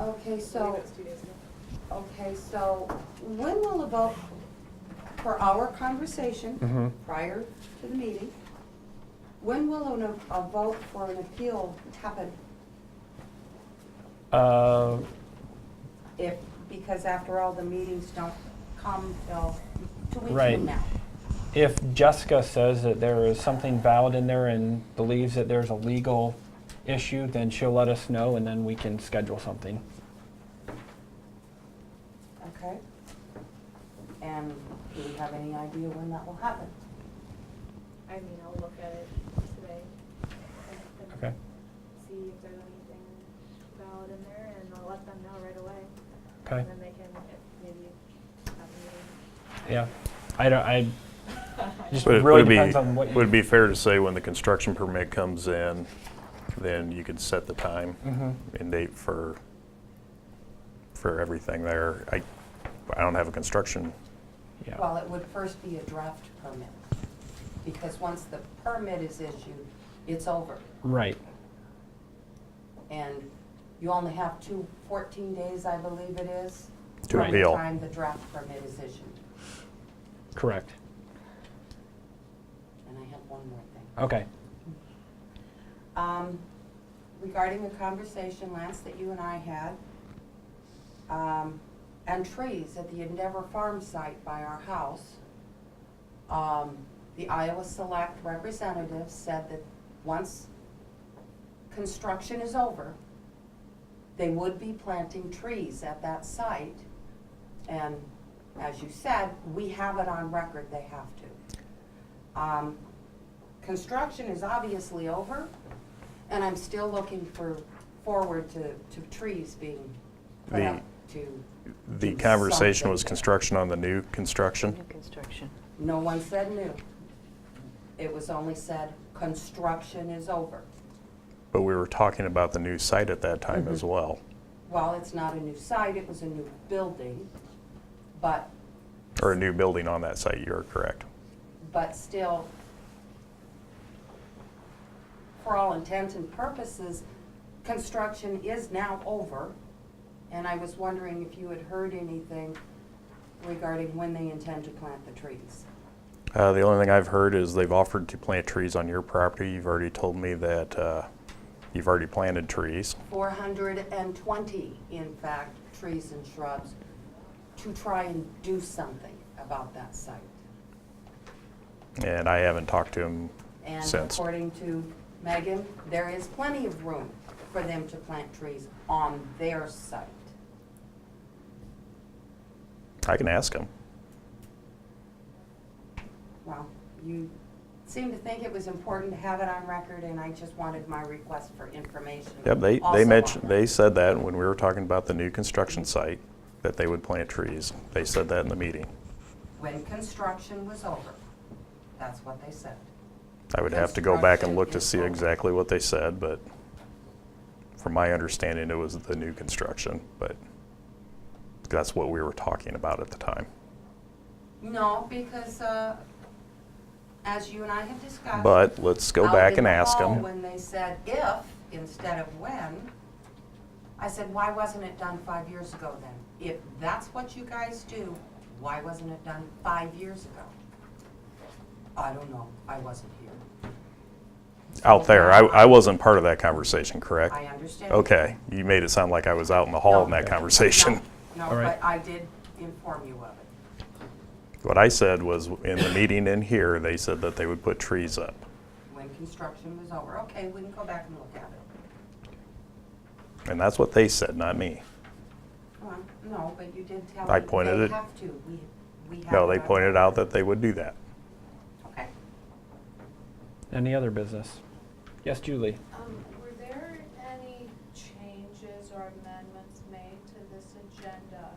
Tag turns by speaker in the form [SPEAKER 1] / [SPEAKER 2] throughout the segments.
[SPEAKER 1] Okay,
[SPEAKER 2] I believe
[SPEAKER 1] so,
[SPEAKER 2] it was two days ago.
[SPEAKER 1] okay, so when will the vote for our conversation
[SPEAKER 3] Mhm.
[SPEAKER 1] prior to the meeting? When will an, a vote for an appeal happen?
[SPEAKER 3] Uh,
[SPEAKER 1] If, because after all, the meetings don't come till two weeks
[SPEAKER 3] Right.
[SPEAKER 1] from now.
[SPEAKER 3] If Jessica says that there is something valid in there and believes that there's a legal issue, then she'll let us know and then we can schedule something.
[SPEAKER 1] Okay? And do we have any idea when that will happen?
[SPEAKER 2] I mean, I'll look at it today. and- and
[SPEAKER 3] Okay.
[SPEAKER 2] See if there's anything valid in there, and I'll let them know right away.
[SPEAKER 3] Okay.
[SPEAKER 2] And then they can, if maybe have a
[SPEAKER 3] Yeah. I don't, I, just
[SPEAKER 4] But it
[SPEAKER 3] really
[SPEAKER 4] would be-
[SPEAKER 3] depends on what you.
[SPEAKER 4] Would it be fair to say when the construction permit comes in, then you could set the time
[SPEAKER 3] Mhm.
[SPEAKER 4] and date for, for everything there? I, I don't have a construction,
[SPEAKER 3] Yeah.
[SPEAKER 1] Well, it would first be a draft permit, because once the permit is issued, it's over.
[SPEAKER 3] Right.
[SPEAKER 1] And you only have two, 14 days, I believe it is.
[SPEAKER 4] To
[SPEAKER 1] from
[SPEAKER 4] appeal.
[SPEAKER 1] the time the draft permit is issued.
[SPEAKER 3] Correct.
[SPEAKER 1] And I have one more thing.
[SPEAKER 3] Okay.
[SPEAKER 1] Um, Regarding the conversation, Lance, that you and I had, um, and trees at the Endeavor Farm site by our house, um, the Iowa Select representative said that once construction is over, they would be planting trees at that site. And as you said, we have it on record, they have to. Um, Construction is obviously over, and I'm still looking for, forward to, to trees being put
[SPEAKER 4] The-
[SPEAKER 1] up to,
[SPEAKER 4] the conversation was
[SPEAKER 1] Something.
[SPEAKER 4] construction on the new construction?
[SPEAKER 5] New construction.
[SPEAKER 1] no one said new. It was only said, construction is over.
[SPEAKER 4] But we were talking about the new site at that time
[SPEAKER 3] Mm-hmm.
[SPEAKER 4] as well,
[SPEAKER 1] Well, it's not a new site, it was a new building, but,
[SPEAKER 4] or a new building on that site, you're correct.
[SPEAKER 1] but still, for all intents and purposes, construction is now over. And I was wondering if you had heard anything regarding when they intend to plant the trees.
[SPEAKER 4] Uh, the only thing I've heard is they've offered to plant trees on your property. You've already told me that, uh, you've already planted trees.
[SPEAKER 1] 420, in fact, trees and shrubs to try and do something about that site.
[SPEAKER 4] And I haven't talked to him
[SPEAKER 1] And
[SPEAKER 4] since.
[SPEAKER 1] according to Megan, there is plenty of room for them to plant trees on their site.
[SPEAKER 4] I can ask him.
[SPEAKER 1] Well, you seem to think it was important to have it on record, and I just wanted my request for information.
[SPEAKER 4] Yep, they,
[SPEAKER 1] also
[SPEAKER 4] they
[SPEAKER 1] on
[SPEAKER 4] mentioned,
[SPEAKER 1] that.
[SPEAKER 4] they said that when we were talking about the new construction site, that they would plant trees. They said that in the meeting.
[SPEAKER 1] When construction was over, that's what they said.
[SPEAKER 4] I would have to go back and look to
[SPEAKER 1] Construction
[SPEAKER 4] see
[SPEAKER 1] is over.
[SPEAKER 4] exactly what they said, but from my understanding, it was the new construction, but that's what we were talking about at the time.
[SPEAKER 1] No, because, uh, as you and I have discussed.
[SPEAKER 4] But let's go
[SPEAKER 1] out
[SPEAKER 4] back
[SPEAKER 1] in
[SPEAKER 4] and
[SPEAKER 1] the
[SPEAKER 4] ask
[SPEAKER 1] hall
[SPEAKER 4] them.
[SPEAKER 1] When they said if instead of when, I said, why wasn't it done five years ago then? If that's what you guys do, why wasn't it done five years ago? I don't know, I wasn't here.
[SPEAKER 4] Out there, I, I wasn't part of that conversation, correct?
[SPEAKER 1] I understand.
[SPEAKER 4] Okay, you made it sound like I was out in the hall in that
[SPEAKER 1] No.
[SPEAKER 4] conversation.
[SPEAKER 1] No,
[SPEAKER 3] All
[SPEAKER 1] no,
[SPEAKER 3] right.
[SPEAKER 1] but I did inform you of it.
[SPEAKER 4] What I said was, in the meeting in here, they said that they would put trees up.
[SPEAKER 1] When construction was over, okay, we can go back and look at it.
[SPEAKER 4] And that's what they said, not me.
[SPEAKER 1] Well, no, but you did tell me.
[SPEAKER 4] I pointed
[SPEAKER 1] they
[SPEAKER 4] it-
[SPEAKER 1] have to, we, we have.
[SPEAKER 4] No,
[SPEAKER 1] it
[SPEAKER 4] they
[SPEAKER 1] on
[SPEAKER 4] pointed out that they would do that.
[SPEAKER 1] Okay.
[SPEAKER 3] Any other business? Yes, Julie?
[SPEAKER 6] Um, were there any changes or amendments made to this agenda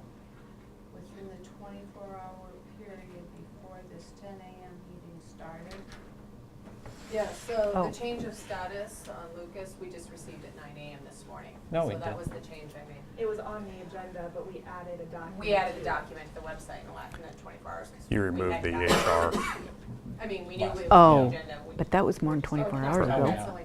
[SPEAKER 6] within the twenty-four hour period before this ten AM meeting started?
[SPEAKER 2] Yeah, so
[SPEAKER 5] Oh.
[SPEAKER 2] the change of status on Lucas, we just received at nine AM this morning.
[SPEAKER 3] No, we
[SPEAKER 6] So
[SPEAKER 3] didn't.
[SPEAKER 6] that was the change I made.
[SPEAKER 7] It was on the agenda, but we added a document.
[SPEAKER 6] We
[SPEAKER 7] to
[SPEAKER 6] added the
[SPEAKER 7] it.
[SPEAKER 6] document to the website and left in the twenty-four hours. 'cause
[SPEAKER 4] You
[SPEAKER 6] we
[SPEAKER 4] removed
[SPEAKER 6] had
[SPEAKER 4] the
[SPEAKER 6] that.
[SPEAKER 4] HR.
[SPEAKER 6] I mean, we knew it was
[SPEAKER 5] Oh,
[SPEAKER 6] on the agenda. we-
[SPEAKER 5] but that was more than 24
[SPEAKER 2] Oh,
[SPEAKER 5] hours
[SPEAKER 3] okay.
[SPEAKER 5] ago.
[SPEAKER 2] That's only